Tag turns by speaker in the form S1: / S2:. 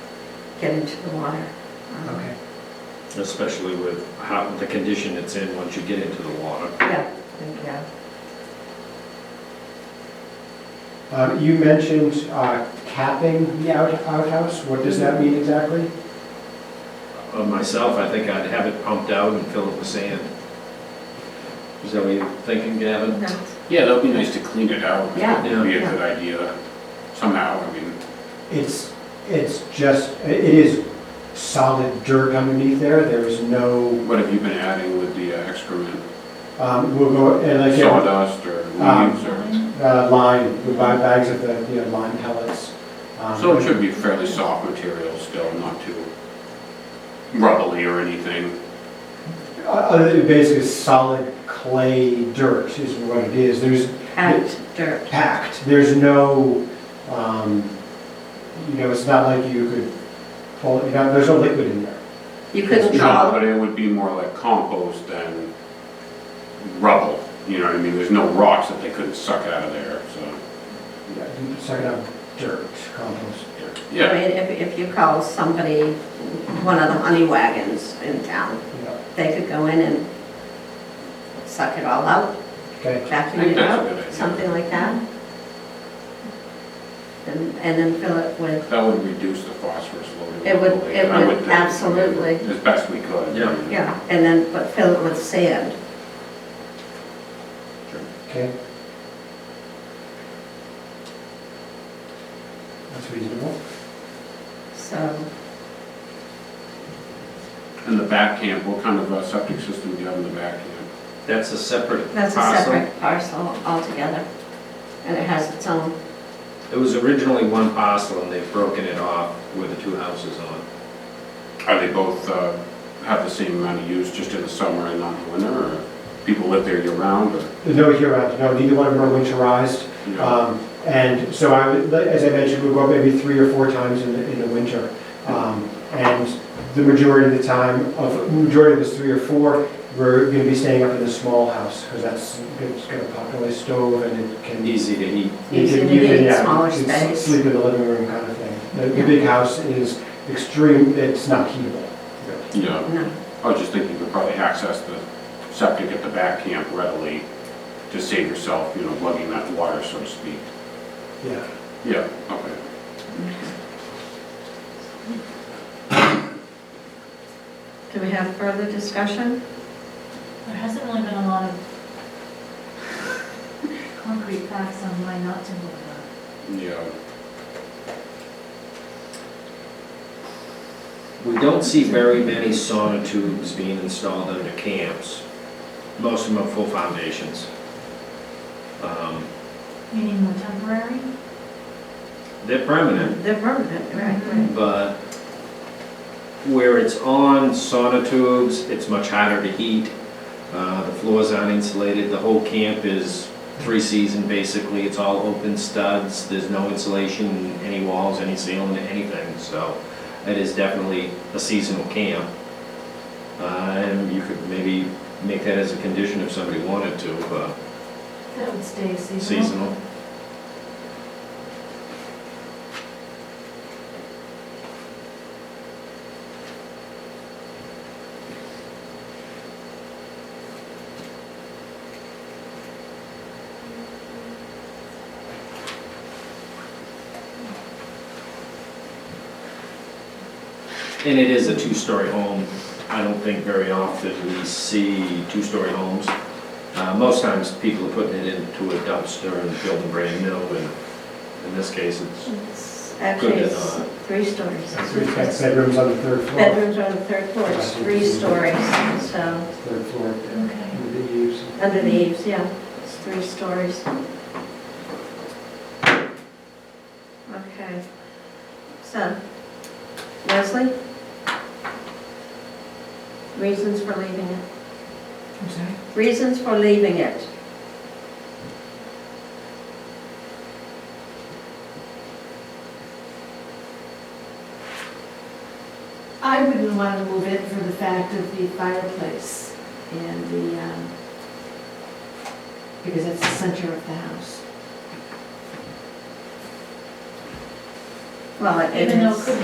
S1: get into the water. Um,
S2: Okay.
S3: especially with how, the condition it's in once you get into the water.
S1: Yeah, and, yeah.
S2: Uh, You mentioned uh, capping the out- outhouse. What does that mean exactly?
S3: Of Uh, myself, I think I'd have it pumped out and fill it with sand. Is that what you're thinking, Gavin?
S1: No.
S4: Yeah, that'd be nice to clean it out.
S1: Yeah.
S4: It'd be a
S1: Yeah.
S4: good idea somehow, I mean,
S2: It's, it's just, it is solid dirt underneath there. There is no,
S4: what have you been adding with the uh, excrement?
S2: um, we'll go, and again,
S4: Sawdust or
S2: Um,
S4: leaves or?
S2: uh, lime, we buy bags of the, you know, lime pellets. Um,
S4: So it should be fairly soft material still, not too rubbly or anything.
S2: o- Other than uh, basically solid clay dirt is what it is. There's
S1: Packed dirt.
S2: packed. There's no, um, you know, it's not like you could pull, you know, there's no liquid in there.
S1: You couldn't
S4: No,
S1: call,
S4: but it would be more like compost than rubble, you know what I mean? There's no rocks that they couldn't suck out of there, so,
S2: Yeah, you suck it up dirt, compost.
S1: I
S4: yeah.
S1: mean, if, if you call somebody, one of the honey wagons in town,
S2: Yeah,
S1: they could go in and suck it all out,
S2: okay.
S1: vacuum
S4: I think
S1: it
S4: that's a
S1: out,
S4: good idea.
S1: something like that. And, and then fill it with,
S4: That would reduce the phosphorus load.
S1: It would- it
S4: I
S1: would
S4: think,
S1: absolutely.
S4: As best we could.
S3: Yeah.
S1: yeah, and then, but fill it with sand.
S2: Okay. That's reasonable.
S1: So,
S4: In the back camp, what kind of uh, septic system do you have in the back camp?
S3: That's a separate
S1: that's a
S3: parcel.
S1: separate parcel altogether, and it has its own,
S3: It was originally one parcel and they've broken it off where the two houses on.
S4: Are they both, uh, have the same amount of use just in the summer and not in the winter, or people live there year-round, or?
S2: There's No year round, no, neither one of them are winterized.
S4: you know?
S2: Um, And so I, would- as I mentioned, we go up maybe three or four times in the, in the winter. Um, And the majority of the time, of, majority of those three or four, we're gonna be staying up in the small house, because that's, it's got a popular stove and it can.
S3: Easy to heat.
S2: You
S1: Easy
S2: can-
S1: to
S2: you can,
S1: heat,
S2: yeah,
S1: smaller
S2: you can
S1: space.
S2: Sleep in the living room kind of thing. The, the
S1: Yeah.
S2: big house is extreme, it's not heatable.
S4: Yeah,
S1: no.
S4: I was just thinking you could probably access the septic at the back camp readily to save yourself, you know, lugging that water, so to speak.
S2: Yeah.
S4: Yeah, okay.
S1: Do we have further discussion?
S5: There hasn't really been a lot of concrete facts on why not to move uh, on.
S4: Yeah.
S3: We don't see very many sonotubes being installed under camps. Most of them are full foundations. Um,
S5: Meaning more temporary?
S3: They're permanent,
S1: They're permanent, right?
S3: but where it's on sonotubes, it's much harder to heat. Uh, The floors aren't insulated, the whole camp is three-season basically, it's all open studs, there's no insulation, any walls, any ceiling, anything, so it is definitely a seasonal camp. Uh, And you could maybe make that as a condition if somebody wanted to, but
S5: That would stay seasonal.
S3: seasonal. And it is a two-story home. I don't think very often we see two-story homes. Uh, Most times, people are putting it into a dumpster and building brand new, and in this case, it's,
S1: It's Actually,
S3: Good,
S1: it's
S3: uh,
S1: three stories.
S2: Three bed- bedrooms on the third floor.
S1: Bedrooms are on the third floor, it's three stories, so,
S2: Third floor,
S5: Okay.
S2: with the eaves.
S1: under the eaves, yeah, it's three stories. Okay, so, Leslie? Reasons for leaving it?
S5: I'm sorry?
S1: Reasons for leaving it?
S6: I wouldn't want to move it for the fact of the fireplace and the, um, because that's the center of the house.
S1: Well, it is.
S5: Even though it could